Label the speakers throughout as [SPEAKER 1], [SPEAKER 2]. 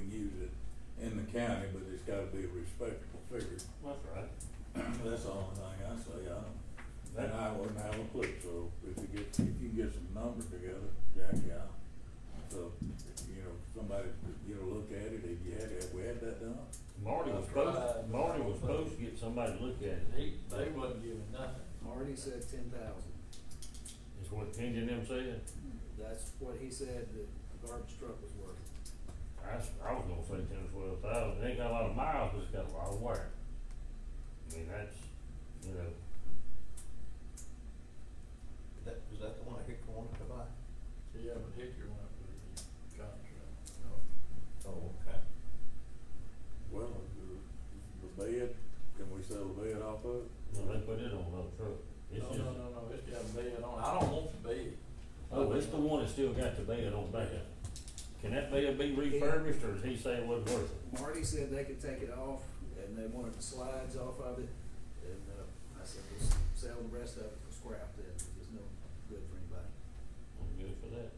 [SPEAKER 1] that, in the county, but it's gotta be a respectable figure.
[SPEAKER 2] That's right.
[SPEAKER 1] That's the only thing I say, I don't, and I wouldn't have a clue, so if you get, if you get some numbers together, Jackie, I, so, you know, somebody, you know, look at it, if you had, if we had that done,
[SPEAKER 2] Marty was supposed, Marty was supposed to get somebody to look at it.
[SPEAKER 3] They, they wasn't giving nothing.
[SPEAKER 4] Marty said ten thousand.
[SPEAKER 2] Is what Kenji and them said.
[SPEAKER 4] That's what he said the garbage truck was worth.
[SPEAKER 2] I, s- I was gonna say ten or twelve thousand. It ain't got a lot of miles, but it's got a lot of wear. I mean, that's, you know,
[SPEAKER 5] That, was that the one I hit wanted to buy?
[SPEAKER 3] Yeah, but Hickory went with the contract.
[SPEAKER 5] Oh, okay.
[SPEAKER 1] well, the, the bid, can we sell the bid off of it?
[SPEAKER 2] no, they put it on another truck. It's
[SPEAKER 3] No,
[SPEAKER 2] just,
[SPEAKER 3] no, no, no, it's got a bed on, it. I don't want the bed.
[SPEAKER 2] oh, it's the one that still got the bed on back. Can that bed be refurbished or is he saying it wasn't worth it?
[SPEAKER 4] Marty said they could take it off and they wanted the slides off of it. And, uh, I said, we'll s- sell the rest of it for scrap then, if it's no good for anybody.
[SPEAKER 2] I'm good for that.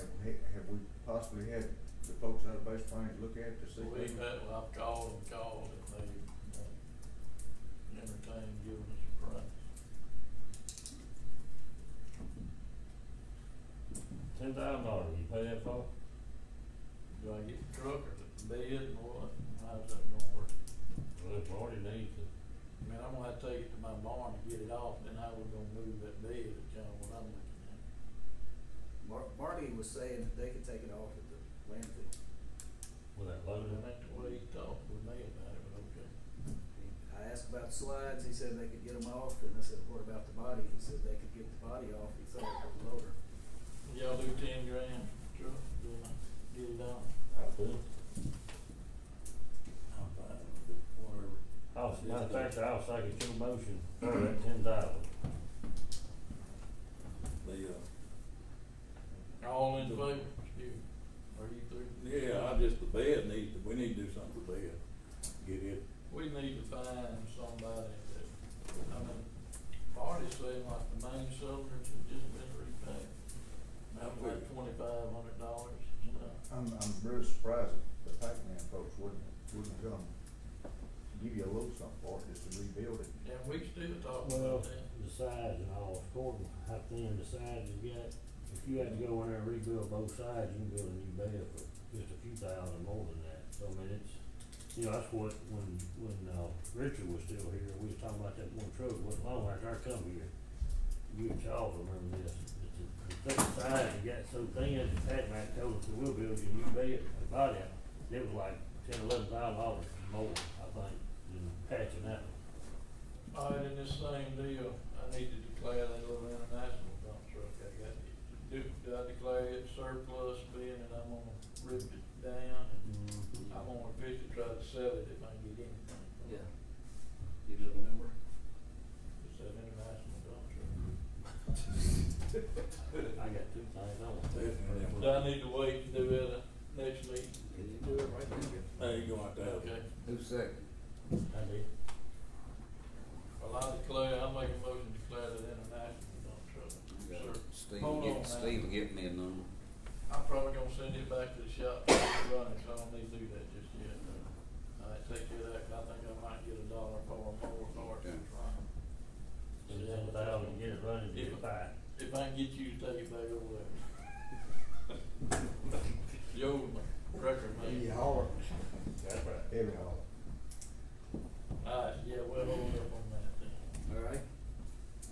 [SPEAKER 6] Have we, have we possibly had the folks out of Base Plains look at it to see?
[SPEAKER 3] So we, that, well, I've called and called and they uh, won't entertain giving us a price.
[SPEAKER 2] Ten thousand dollars, you pay that for?
[SPEAKER 3] Do I get the truck or the bed and what? How's that gonna work?
[SPEAKER 2] Well, if Marty needs it.
[SPEAKER 3] I mean, I'm gonna have to take it to my barn to get it off, then I was gonna move that bed, is kinda what I'm looking at.
[SPEAKER 4] Mar- Marty was saying that they could take it off at the landfill.
[SPEAKER 2] With that load
[SPEAKER 3] But
[SPEAKER 2] in it?
[SPEAKER 3] I ain't the way he talked with me about it, but okay.
[SPEAKER 4] He- I asked about the slides, he said they could get them off, and I said, what about the body? He said they could get the body off, he thought it was lower.
[SPEAKER 3] Y'all do ten grand truck, then I get it off.
[SPEAKER 2] I could.
[SPEAKER 1] I'm fine with it, whatever.
[SPEAKER 2] I was, matter of fact, I was second your motion for that ten thousand.
[SPEAKER 1] The, uh,
[SPEAKER 3] All in favor, excuse me, are you through?
[SPEAKER 1] yeah, I just, the bid needs, to- we need to do something with the bid, get it
[SPEAKER 3] We need to find somebody that, I mean, Marty said like the main subject has just been repaid. That was like twenty-five hundred dollars, you know.
[SPEAKER 6] I'm, I'm really surprised that the Pac-Man folks wouldn't, wouldn't come give you a little something for it, just to rebuild it.
[SPEAKER 3] And we still talk
[SPEAKER 7] Well,
[SPEAKER 3] about that.
[SPEAKER 7] the sides and all, according to how thin the sides you got, if you had to go in there and rebuild both sides, you can build a new bed for just a few thousand more than that. So I mean, it's, you know, that's what, when, when, uh, Richard was still here, we was talking about that one truck, wasn't long after I come here. You and Charles remember this, that the, the thick sides you got so thin, the Pat Mac told us, we'll build you a new bed, a body out. It was like ten, eleven thousand dollars more, I think, than patching that one.
[SPEAKER 3] All right, in this same deal, I need to declare that little international dump truck I got. Do, do I declare it surplus being that I'm gonna rip it down? I'm gonna officially try to sell it if I can get anything. from it.
[SPEAKER 4] You know the number?
[SPEAKER 3] It's that international dump truck.
[SPEAKER 7] I got two things I want to say.
[SPEAKER 1] Definitely.
[SPEAKER 3] Do I need to wait to do it at the next meeting?
[SPEAKER 4] Can you do it right there?
[SPEAKER 1] There you go, out there.
[SPEAKER 3] Okay.
[SPEAKER 6] Who's second?
[SPEAKER 7] I did.
[SPEAKER 3] Well, I declare, I make a motion to declare that international dump truck. Sir,
[SPEAKER 8] Steve,
[SPEAKER 3] Hold
[SPEAKER 8] will
[SPEAKER 3] on,
[SPEAKER 8] get,
[SPEAKER 3] man.
[SPEAKER 8] Steve will get me a number.
[SPEAKER 3] I'm probably gonna send it back to the shop to get it running, so I don't need to do that just yet. I take care of that, 'cause I think I might get a dollar for a mower for it.
[SPEAKER 2] Ten thousand, get it running, get it fired.
[SPEAKER 3] If I can get you to take it back over there. The old record man.
[SPEAKER 6] holler.
[SPEAKER 2] That's right.
[SPEAKER 6] Every holler.
[SPEAKER 3] All right, yeah, we'll hold up on that then.
[SPEAKER 4] All right.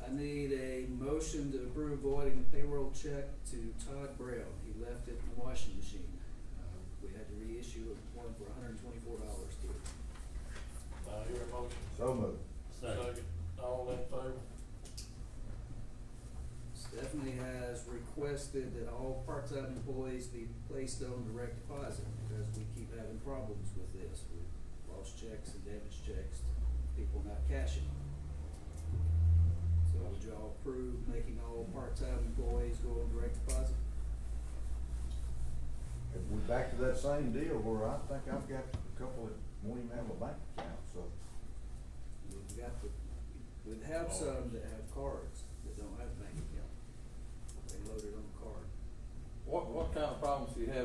[SPEAKER 4] I need a motion to approve voiding the payroll check to Todd Braille. He left it in the washing machine. Uh, We had to reissue one for hundred and twenty-four dollars to it.
[SPEAKER 3] I hear a motion.
[SPEAKER 6] So moved.
[SPEAKER 2] Second.
[SPEAKER 3] All in favor?
[SPEAKER 4] Stephanie has requested that all part-time employees be placed on direct deposit because we keep having problems with this. We've lost checks and damaged checks, people not cashing. So would y'all approve making all part-time employees go on direct deposit?
[SPEAKER 6] And we're back to that same deal where I think I've got a couple that won't even have a bank account, so.
[SPEAKER 4] We've got the, we have some that have cards that don't have bank account. They load it on the card.
[SPEAKER 1] What, what kind of problems do you have